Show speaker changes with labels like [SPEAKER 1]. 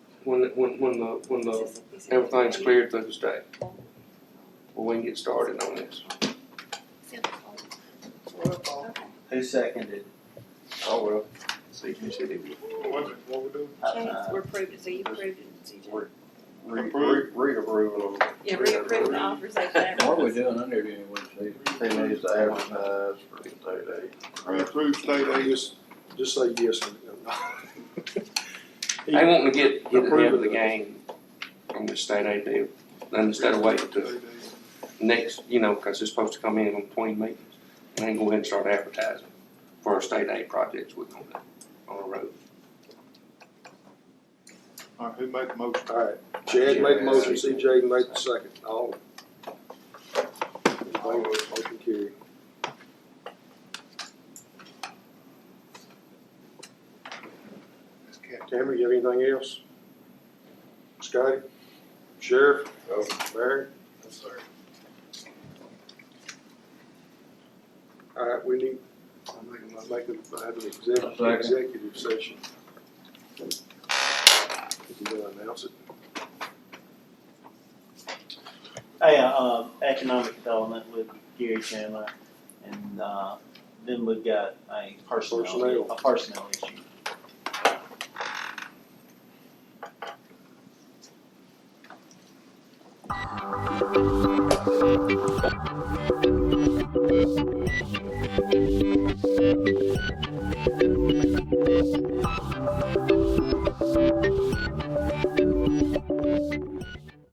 [SPEAKER 1] when, when, when the, when the,
[SPEAKER 2] Just a piece of-
[SPEAKER 1] everything's cleared through the state. Well, we can get started on this.
[SPEAKER 2] Okay.
[SPEAKER 3] Who seconded?
[SPEAKER 1] Oh, well. See, you said it.
[SPEAKER 4] What, was it? what we do?
[SPEAKER 3] Uh,
[SPEAKER 2] Change, we're approving, so you approved it, CJ.
[SPEAKER 1] We're- Re, re, reapproval of.
[SPEAKER 2] Yeah, reapprove the authorization.
[SPEAKER 5] What are we doing under here, we
[SPEAKER 1] They need to advertise for
[SPEAKER 4] I mean, approved state aid, just, just say yes and
[SPEAKER 1] They
[SPEAKER 4] no.
[SPEAKER 1] want to get, get ahead of the game from the state aid deal, then instead of waiting to next, you know, cause it's supposed to come in on between meetings. And then go ahead and start advertising for our state aid projects we're gonna do on the road.
[SPEAKER 4] All right, who made the motion?
[SPEAKER 6] Alright, Chad made the motion, CJ made the second, all. In favor, motion carried.
[SPEAKER 4] Ms. Cat.
[SPEAKER 6] Tammy, you have anything else? Scotty? Sheriff?
[SPEAKER 4] No.
[SPEAKER 6] Barry?
[SPEAKER 4] Yes, sir.
[SPEAKER 6] Alright, we need, I'm making, I'm making, I have an executive,
[SPEAKER 5] Second.
[SPEAKER 6] executive session. Is he gonna announce it?
[SPEAKER 3] Hey, uh, uh, economic development with Gary Chandler, and, uh, then we've got a personnel,
[SPEAKER 6] Personnel.
[SPEAKER 3] a personnel issue.